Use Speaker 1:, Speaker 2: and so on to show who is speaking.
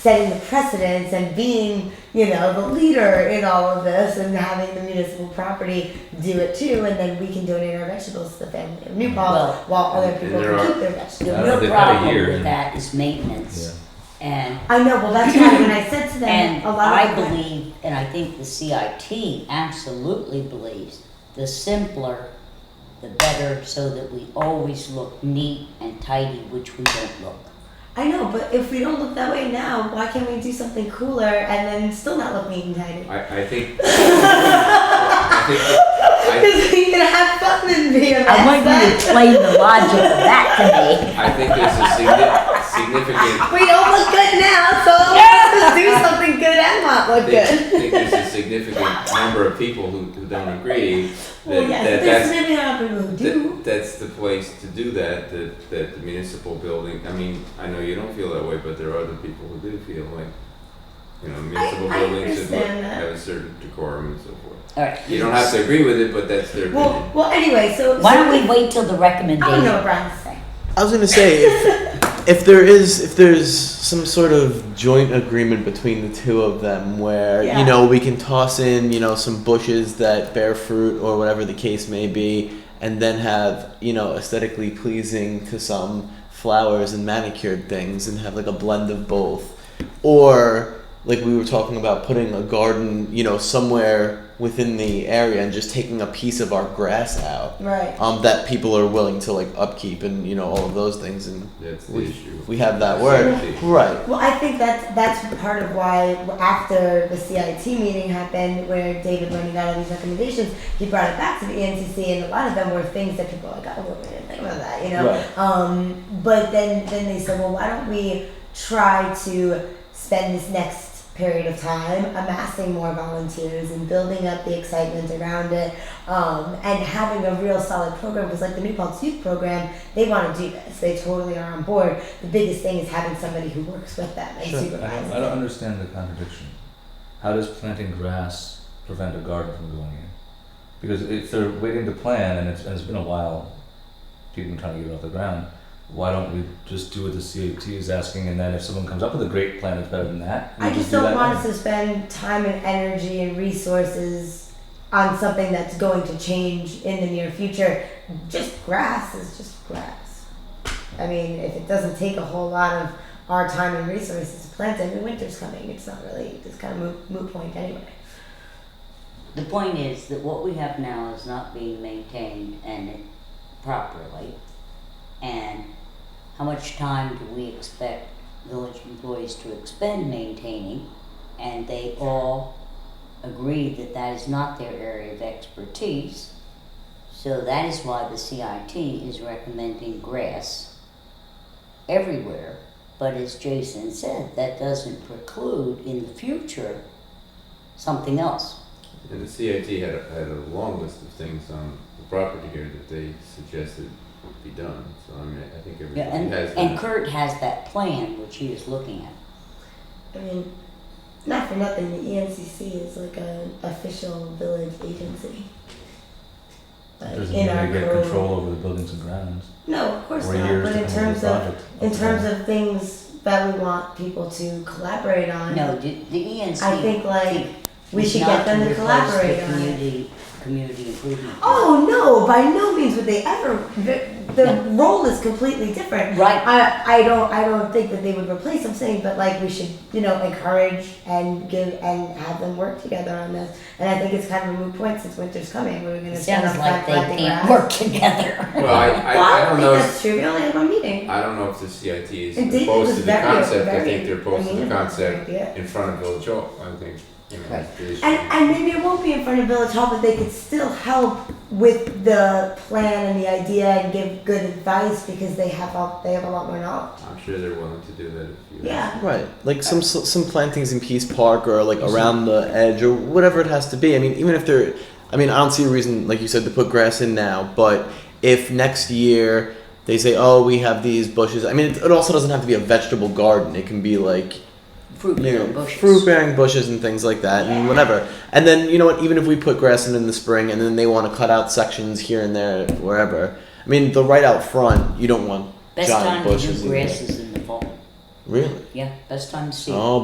Speaker 1: setting the precedence and being, you know, the leader in all of this and having the municipal property do it too, and then we can donate our vegetables to the family of New Paltz
Speaker 2: Well-
Speaker 1: while other people
Speaker 3: There
Speaker 1: can
Speaker 3: are-
Speaker 1: keep their
Speaker 2: The
Speaker 1: vegetables.
Speaker 3: Yeah,
Speaker 2: real
Speaker 3: Uh, they've had a year
Speaker 2: problem with
Speaker 3: and-
Speaker 2: that is maintenance. And,
Speaker 1: I know, well, that's why when I said to them,
Speaker 2: and
Speaker 1: a lot
Speaker 2: I
Speaker 1: of them,
Speaker 2: believe, and I think the CIT absolutely believes, the simpler, the better, so that we always look neat and tidy, which we don't look.
Speaker 1: I know, but if we don't look that way now, why can't we do something cooler and then still not look neat and tidy?
Speaker 3: I, I think. I think that-
Speaker 1: Because we can have fun and be a
Speaker 2: I want you to
Speaker 1: mess,
Speaker 2: explain the logic of that to me.
Speaker 3: I, I think there's a signi- significant.
Speaker 1: but we don't look good now, so let's do something good and not
Speaker 3: I
Speaker 1: look
Speaker 3: think,
Speaker 1: good.
Speaker 3: think there's a significant number of people who, who don't agree that,
Speaker 1: Well, yes,
Speaker 3: that
Speaker 1: there's
Speaker 3: that's
Speaker 1: maybe not people who do.
Speaker 3: that, that's the place to do that, that. That the municipal building. I mean, I know you don't feel that way, but there are other people who do feel like. You know, municipal
Speaker 1: I
Speaker 3: buildings should look,
Speaker 1: understand that.
Speaker 3: have a certain decorum and so forth.
Speaker 2: All right.
Speaker 3: You don't have to agree with it, but that's their
Speaker 1: Well,
Speaker 3: opinion.
Speaker 1: well, anyway, so
Speaker 2: Why
Speaker 1: so
Speaker 2: don't we wait till the recommendation?
Speaker 1: I don't know what Brian's saying.
Speaker 4: I was gonna say if if there is if there's some sort of joint agreement between the two of them where
Speaker 1: Yeah.
Speaker 4: you know we can toss in you know some bushes that bear fruit or whatever the case may be and then have you know aesthetically pleasing to some flowers and manicured things and have like a blend of both or like we were talking about putting a garden you know somewhere within the area and just taking a piece of our grass out
Speaker 1: Right.
Speaker 4: um, that people are willing to like upkeep and you know all of those things and
Speaker 3: That's the
Speaker 4: we,
Speaker 3: issue.
Speaker 4: we have that word
Speaker 3: Safety.
Speaker 4: right
Speaker 1: Well, I think that's that's part of why after the CIT meeting happened, where David Lenny got all these recommendations, he brought it back to the ENCC, and a lot of them were things that people were like, oh, we didn't think about that, you know.
Speaker 4: Right.
Speaker 1: Um, but then then they said, well, why don't we try to spend this next period of time amassing more volunteers and building up the excitement around it um, and having a real solid program because like the New Paltz Youth Program, they want to do this. They totally are on board. The biggest thing is having somebody who works with them and
Speaker 4: Sure. I
Speaker 5: I
Speaker 1: supervises
Speaker 5: don't, I don't understand the contradiction. How does planting grass prevent a garden from going in? Because if they're waiting to plant and it's, and it's been a while, people have been trying to get it off the ground, why don't we just do what the CAT is asking and then if someone comes up with a great plan that's better than that, we
Speaker 1: I just
Speaker 5: do
Speaker 1: don't
Speaker 5: that
Speaker 1: want us
Speaker 5: then.
Speaker 1: to spend time and energy and resources on something that's going to change in the near future. Just grass is just grass. I mean, if it doesn't take a whole lot of our time and resources to plant it, I mean, winter's coming. It's not really, it's kind of moot, moot point anyway.
Speaker 2: The point is that what we have now is not being maintained and it- properly. And how much time do we expect village employees to expend maintaining? And they all agree that that is not their area of expertise. So that is why the CIT is recommending grass everywhere. But as Jason said, that doesn't preclude in the future something else.
Speaker 3: And the CIT had a, had a long list of things on the property here that they suggested would be done. So I mean, I think
Speaker 2: Yeah,
Speaker 3: everybody
Speaker 2: and,
Speaker 3: has.
Speaker 2: and
Speaker 3: that.
Speaker 2: Kurt has that plan which he is looking at.
Speaker 1: I mean, not for nothing, the E ENCC is like an official village agency. Like,
Speaker 5: It doesn't
Speaker 1: in
Speaker 5: mean
Speaker 1: our
Speaker 5: they get
Speaker 1: code.
Speaker 5: control over the buildings and grounds.
Speaker 1: No, of course
Speaker 5: or
Speaker 1: not.
Speaker 5: years
Speaker 1: But
Speaker 5: to
Speaker 1: in
Speaker 5: come up
Speaker 1: terms
Speaker 5: with
Speaker 1: of
Speaker 5: a project.
Speaker 1: in terms of things that we want people to collaborate on.
Speaker 2: No, the, E the ENC.
Speaker 1: I think like we
Speaker 2: is
Speaker 1: should get
Speaker 2: not
Speaker 1: them to
Speaker 2: replace
Speaker 1: collaborate
Speaker 2: the
Speaker 1: on it.
Speaker 2: community, Community improvement.
Speaker 1: Oh no! By no means would they ever. The, the role is completely different.
Speaker 2: Right.
Speaker 1: I, I don't I don't think that they would replace. I'm saying, but like we should you know encourage and give and have them work together on this. And I think it's kind of a moot point since winter's coming. We're going
Speaker 2: It
Speaker 1: to
Speaker 2: sounds like they can't work together.
Speaker 3: well, I, I,
Speaker 1: Well,
Speaker 3: I
Speaker 1: don't
Speaker 3: don't
Speaker 1: think
Speaker 3: know. If,
Speaker 1: that's true. We only have one meeting.
Speaker 3: I don't know if the CIT is
Speaker 1: And David
Speaker 3: opposed
Speaker 1: was
Speaker 3: to the
Speaker 1: very-
Speaker 3: concept. I
Speaker 1: very
Speaker 3: think they're opposed to the
Speaker 1: amenable
Speaker 3: concept
Speaker 1: idea.
Speaker 3: in front of Village Hall. I think you know, that's the issue.
Speaker 1: And, and maybe it won't be in front of Village Hall, but they could still help with the plan and the idea and give good advice because they have all, they have a lot more knowledge.
Speaker 3: I'm sure they're willing to do that if you.
Speaker 1: Yeah.
Speaker 4: right like some s- some plantings in peace park or like around the edge or whatever it has to be i mean even if they're i mean i don't see a reason like you said to put grass in now but if next year they say oh we have these bushes i mean it, it also doesn't have to be a vegetable garden it can be like
Speaker 2: Fruit
Speaker 4: you
Speaker 2: bearing
Speaker 4: know,
Speaker 2: bushes.
Speaker 4: fruit bearing bushes and things like that and whatever. And then you know what, even if we put grass in in the spring and then they want to cut out sections here and there wherever. I mean, the right out front, you don't want
Speaker 2: Best
Speaker 4: giant
Speaker 2: time to
Speaker 4: bushes
Speaker 2: do
Speaker 4: in there.
Speaker 2: grass is in the fall.
Speaker 4: Really?
Speaker 2: Yeah, best time to see it.
Speaker 4: Oh